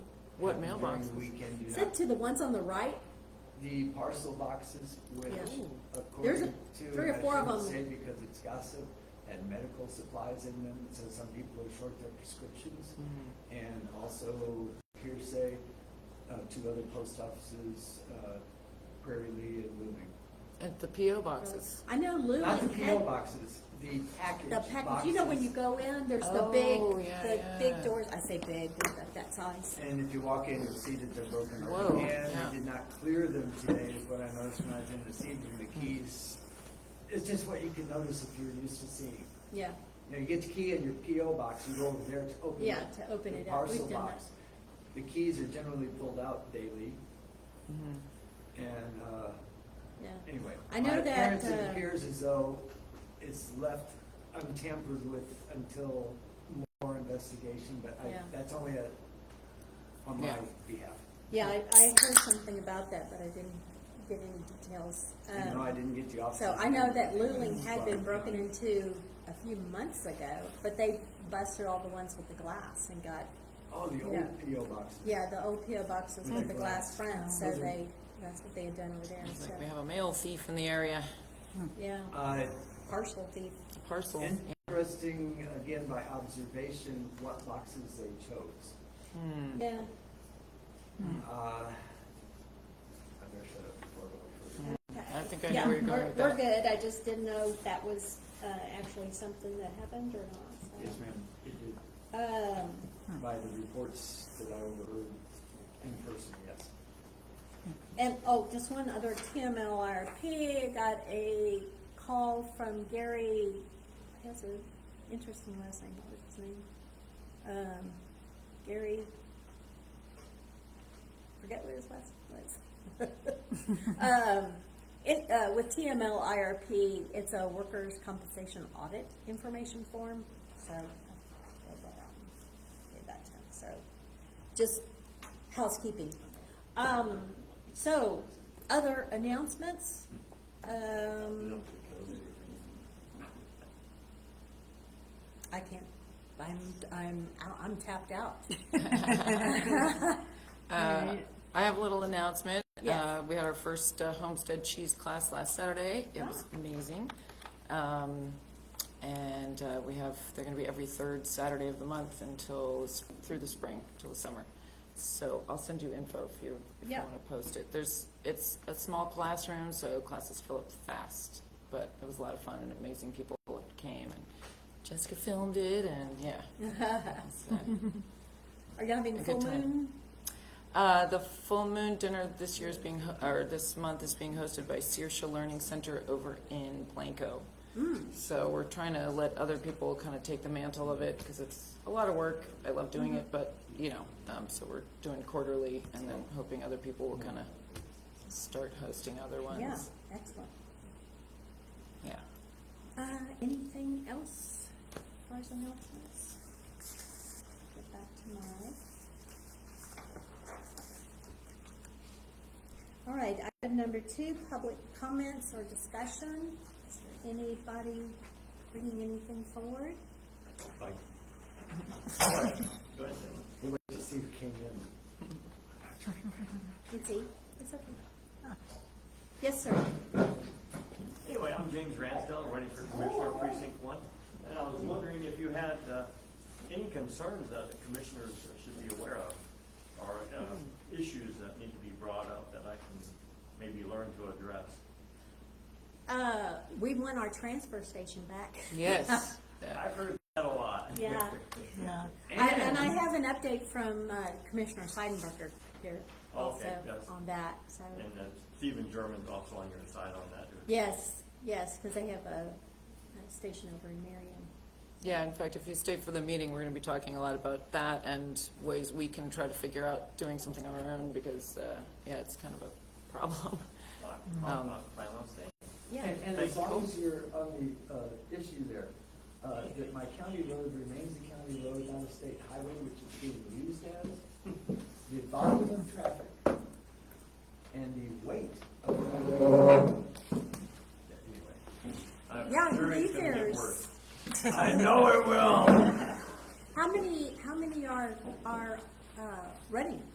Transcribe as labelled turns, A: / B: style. A: What
B: during
A: mailboxes?
B: the Weekend, do
C: Sent
B: not.
C: to the ones on the right,
B: The parcel boxes, which
C: Yeah. Ooh. There's
B: according
C: a-
B: to,
C: three or
B: and I
C: four of
B: shouldn't
C: them.
B: Say because it's gossip, had medical supplies in them, so some people are short their prescriptions.
A: Mm-hmm.
B: And also hearsay, uh, two other post offices, uh, Prairie Lee and Looming.
A: At the PO boxes.
C: I know Lumen
B: Not the PO
C: had
B: boxes, the package
C: the package, you know, when you
B: boxes.
C: go in, there's the
A: Oh,
C: big,
A: yeah,
C: the
A: yeah.
C: big doors, I say big, they're about that size.
B: And if you walk in, you'll see that they're broken
A: Whoa,
B: open. And
A: yeah.
B: they did not clear them today, is what I noticed when I was in receiving
C: Hmm.
B: the keys. It's just what you can notice if you're used to seeing.
C: Yeah,
B: You know, you get the key in your PO box, you go over there to open it.
C: Yeah, to open
B: The
C: it up. We've
B: Parcel
C: done
B: box. The keys are generally pulled out daily.
A: Mm-hmm.
B: And, uh,
C: yeah.
B: anyway.
C: I know
B: my
C: that,
B: appearance,
C: uh,
B: It appears as though it's left untampered with until more investigation, but I,
C: Yeah.
B: that's only a, on my
A: Yeah.
B: behalf.
C: Yeah, I, I heard something about that, but I didn't get any details.
B: And no,
C: Um,
B: I didn't get the officer.
C: So I know that Luling had been broken into a few months ago, but they busted all the ones with the glass and got,
B: Oh, the
C: Yeah.
B: old PO boxes.
C: yeah, the old PO boxes with the glass front, so
B: Those are-
C: they, that's what they had done over there,
A: It's
C: so,
A: like we have a mail thief in the area,
C: yeah,
B: Uh,
C: partial thief,
A: parcel.
B: interesting, again, by observation, what boxes they chose.
A: Mm.
C: yeah.
B: Uh, I better shut up before I go further.
A: I think I know
C: Yeah,
A: where you're going
C: we're,
A: with
C: we're
A: that.
C: good, I just didn't know if that was, uh, actually something that happened or not,
B: Yes, ma'am, it did,
C: so. Um,
B: by the reports that I overheard in person, yes.
C: and, oh, just one other TMLRP, got a call from Gary, he has an interesting last name, what was his name? Um, Gary, forget what his last name was. Um, it, uh, with TML IRP, it's a workers' compensation audit information form, so I filled that out and gave that to him, so, just housekeeping. Um, so, other announcements? Um, I can't, I'm, I'm, out- I'm tapped out.
A: Uh, I have a little announcement.
C: Yes.
A: Uh, We had our first uh, Homestead Cheese class last Saturday. It was
C: Ah.
A: amazing. Um, And uh, we have, they're going to be every third Saturday of the month until, s- through the spring, till the summer. So I'll send you info if you, if you
C: Yeah.
A: want to post it. There's, it's a small classroom, so classes fill up fast. But it was a lot of fun and amazing people came. and Jessica filmed it and, yeah. So-
C: Are you having
A: A
C: full
A: good time.
C: moon?
A: Uh, the full moon dinner this year is being, ho- or this month is being hosted by Searsha Learning Center over in Blanco. So we're trying to let other people kind of take the mantle of it because it's a lot of work. I love doing it, but you know, um, so we're doing quarterly and then hoping other people will kind of start hosting other
C: Yeah,
A: ones.
C: excellent.
A: Yeah.
C: Uh, anything else for us announcements? Get back tomorrow. All right, item number two, public comments or discussion. Is there Anybody bringing anything forward?
B: Like, we'll wait to see who came in.
C: It's eight, it's okay. Yes, sir.
D: Anyway, I'm James Ransdell, running for Commissioner Precinct One, and I was wondering if you had uh, any concerns that the commissioners should be aware of, or uh, issues that need to be brought up that I can maybe learn to address.
C: Uh, we want our transfer station back.
A: Yes.
D: I've heard that a lot.
C: Yeah. I, and I have an update from uh, Commissioner Seidenberger here also
D: Oh, Okay, yes.
C: on that, so.
D: And uh, Stephen German's also on your side on that.
C: Yes, yes, because they have a, a station over in Marion.
A: Yeah, in fact, if you stay for the meeting, we're going to be talking a lot about that and ways we can try to figure out doing something on our own because, uh, yeah, it's kind of a problem.
D: I'm- I'm not planning on staying.
C: Yeah,
B: And, and as long as you're on the, uh, issue there, uh, that my county road remains a county road, not a state highway, which is being used as, the volume of